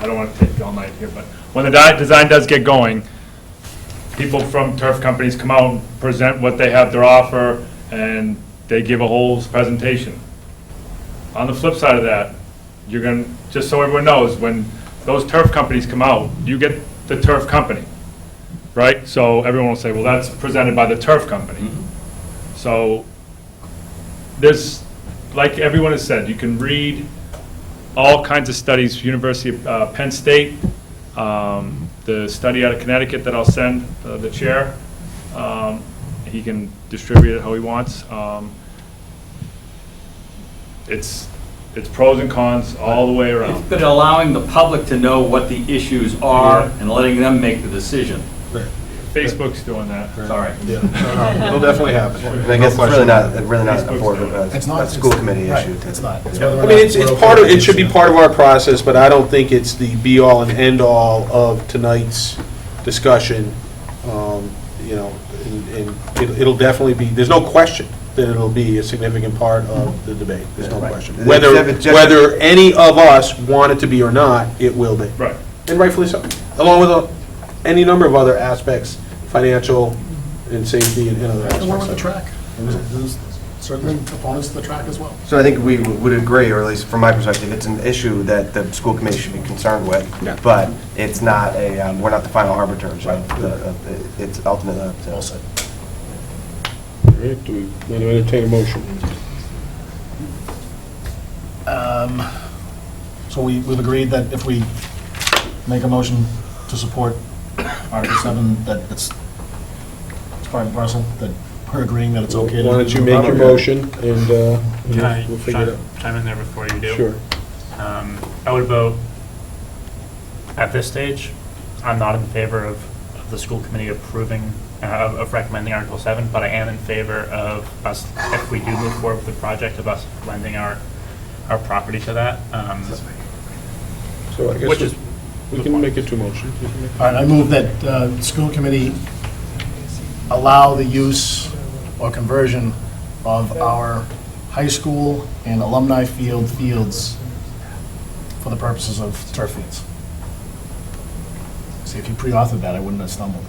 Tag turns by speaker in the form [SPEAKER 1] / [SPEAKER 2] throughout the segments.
[SPEAKER 1] I don't want to take all night here, but when the di- design does get going, people from turf companies come out and present what they have to offer, and they give a whole presentation. On the flip side of that, you're going, to just so everyone knows, when those turf companies come out, you get the turf company, right? So everyone will say, well, that's presented by the turf company. So there's, like everyone has said, you can read all kinds of studies, University of uh, Penn State, um, the study out of Connecticut that I'll send uh, the chair. Um, He can distribute it how he wants. Um, It's, it's pros and cons all the way around.
[SPEAKER 2] It's been allowing the public to know what the issues are and letting them make the decision.
[SPEAKER 1] Facebook's doing that.
[SPEAKER 2] Sorry.
[SPEAKER 3] It'll definitely happen.
[SPEAKER 4] And I guess it's really not, it's really not a
[SPEAKER 1] Facebook's
[SPEAKER 4] board,
[SPEAKER 1] doing it.
[SPEAKER 4] uh,
[SPEAKER 5] It's
[SPEAKER 4] a
[SPEAKER 5] not.
[SPEAKER 4] school committee
[SPEAKER 5] right,
[SPEAKER 4] issue.
[SPEAKER 5] It's not.
[SPEAKER 3] I mean, it's, it's part of, it should be part of our process, but I don't think it's the be-all and end-all of tonight's discussion. Um, You know, and- and it- it'll definitely be, there's no question that it'll be a significant part of the debate, there's no
[SPEAKER 4] Right.
[SPEAKER 3] question.
[SPEAKER 4] It's
[SPEAKER 3] Whether,
[SPEAKER 4] just- it's
[SPEAKER 3] whether any of us want it to be or not, it will be.
[SPEAKER 1] Right.
[SPEAKER 3] And rightfully so, along with uh, any number of other aspects, financial and safety and and other aspects.
[SPEAKER 5] And we're on
[SPEAKER 3] of
[SPEAKER 5] the
[SPEAKER 3] it.
[SPEAKER 5] track. There's certainly opponents to the track as well.
[SPEAKER 4] So I think we would agree, or at least from my perspective, it's an issue that the school committee should be concerned with.
[SPEAKER 3] Yeah.
[SPEAKER 4] But it's not a, um, we're not the final arbiters of the, of it. it's ultimately up to.
[SPEAKER 5] Well said.
[SPEAKER 3] All right, do we want to entertain a motion?
[SPEAKER 5] Um, So we, we've agreed that if we make a motion to support Article 7, that it's, it's part and parcel, that we're agreeing that it's
[SPEAKER 3] Why
[SPEAKER 5] okay to.
[SPEAKER 3] don't you make your motion and uh,
[SPEAKER 6] Can I
[SPEAKER 3] we'll figure it
[SPEAKER 6] chime chime in there before you do?
[SPEAKER 3] out. Sure.
[SPEAKER 6] Um, I would vote, at this stage, I'm not in favor of of the school committee approving, uh, of of recommending Article 7, but I am in favor of us, if we do move forward with the project, of us lending our, our property to that. um,
[SPEAKER 3] So I guess
[SPEAKER 6] Which is-
[SPEAKER 3] we- we can make it two motions. You can make-
[SPEAKER 5] All right, I move that uh, school committee allow the use or conversion of our high school and alumni field fields for the purposes of turf fields. See, if you pre-authored that, I wouldn't have stumbled.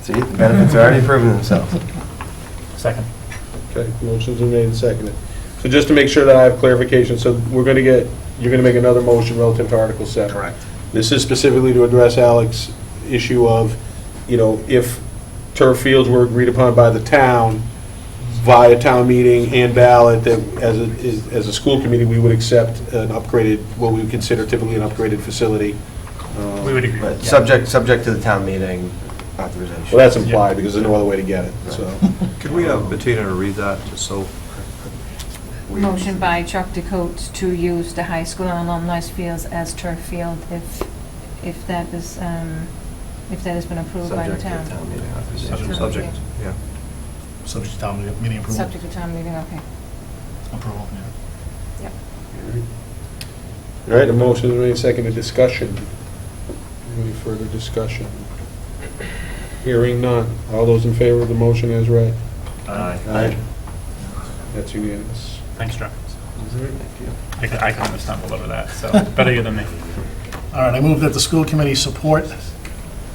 [SPEAKER 4] See, the benefits are already proven themselves.
[SPEAKER 6] Second.
[SPEAKER 3] Okay, motions are made and seconded. So just to make sure that I have clarification, so we're going to get, you're going to make another motion relative to Article 7.
[SPEAKER 5] Correct.
[SPEAKER 3] This is specifically to address Alex's issue of, you know, if turf fields were agreed upon by the town via town meeting and ballot, that as a, is- as a school committee, we would accept an upgraded, what we would consider typically an upgraded facility. Um,
[SPEAKER 6] We would agree.
[SPEAKER 4] But
[SPEAKER 6] Yeah.
[SPEAKER 4] subject, subject to the town meeting authorization.
[SPEAKER 3] Well, that's implied, because there's no other way to get it, so.
[SPEAKER 7] Could we have Bettina read that, just so?
[SPEAKER 8] Motion by Chuck DeCote to use the high school and alumni fields as turf field if, if that is, um, if that has been approved by the
[SPEAKER 4] Subject to the
[SPEAKER 8] town.
[SPEAKER 4] town meeting authorization.
[SPEAKER 7] Subject, yeah.
[SPEAKER 5] Subject to town meeting- meeting approval.
[SPEAKER 8] Subject to town meeting, okay.
[SPEAKER 5] Approval, yeah.
[SPEAKER 8] Yep.
[SPEAKER 3] All right, a motion is made, seconded, discussion. Any further discussion? Hearing none. All those in favor of the motion as read?
[SPEAKER 2] Uh,
[SPEAKER 3] Aye. That's unanimous.
[SPEAKER 6] Thanks, Chuck. I c- I kind of stumbled over that, so better you than me.
[SPEAKER 5] All right, I move that the school committee support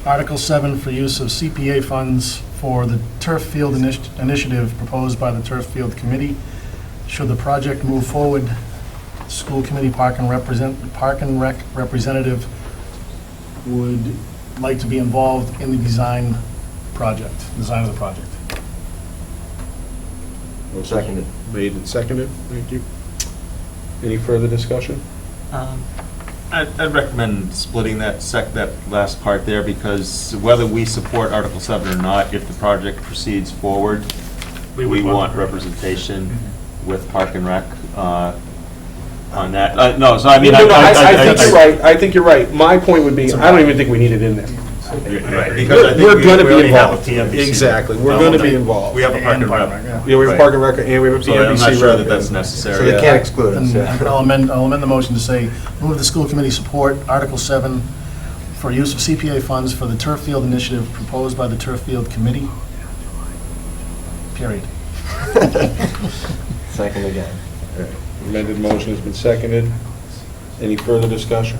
[SPEAKER 5] Article 7 for use of CPA funds for the turf field initi- initiative proposed by the turf field committee. Should the project move forward, school committee park and represent, park and rec representative would like to be involved in the design project, design of the project.
[SPEAKER 4] Seconded.
[SPEAKER 3] Made and seconded, thank you. Any further discussion?
[SPEAKER 7] Um, I'd I'd recommend splitting that sec, that last part there, because whether we support Article 7 or not, if the project proceeds forward,
[SPEAKER 6] We
[SPEAKER 7] we
[SPEAKER 6] would want-
[SPEAKER 7] want representation with Park and Rec uh, on that. Uh, No, so I mean, I...
[SPEAKER 3] No, no, I,
[SPEAKER 7] I-
[SPEAKER 3] I think
[SPEAKER 7] I-
[SPEAKER 3] you're right, I think you're right. My point would be, I don't even think we need it in there.
[SPEAKER 7] Right, because I think
[SPEAKER 3] We're
[SPEAKER 7] we-
[SPEAKER 3] gonna
[SPEAKER 7] we
[SPEAKER 3] be
[SPEAKER 7] already have a
[SPEAKER 3] involved.
[SPEAKER 7] PMBC.
[SPEAKER 3] Exactly, we're gonna be involved.
[SPEAKER 7] Um, We have a Park and Rec.
[SPEAKER 3] Yeah, we have a parking record, and we have a
[SPEAKER 7] So I'm
[SPEAKER 3] PMBC
[SPEAKER 7] not
[SPEAKER 3] record.
[SPEAKER 7] sure that that's necessary.
[SPEAKER 4] So they can't exclude us,
[SPEAKER 5] And
[SPEAKER 4] yeah.
[SPEAKER 5] I'll amend, I'll amend the motion to say, move the school committee support Article 7 for use of CPA funds for the turf field initiative proposed by the turf field committee. Period.
[SPEAKER 4] Second again.
[SPEAKER 3] Amended motion has been seconded. Any further discussion?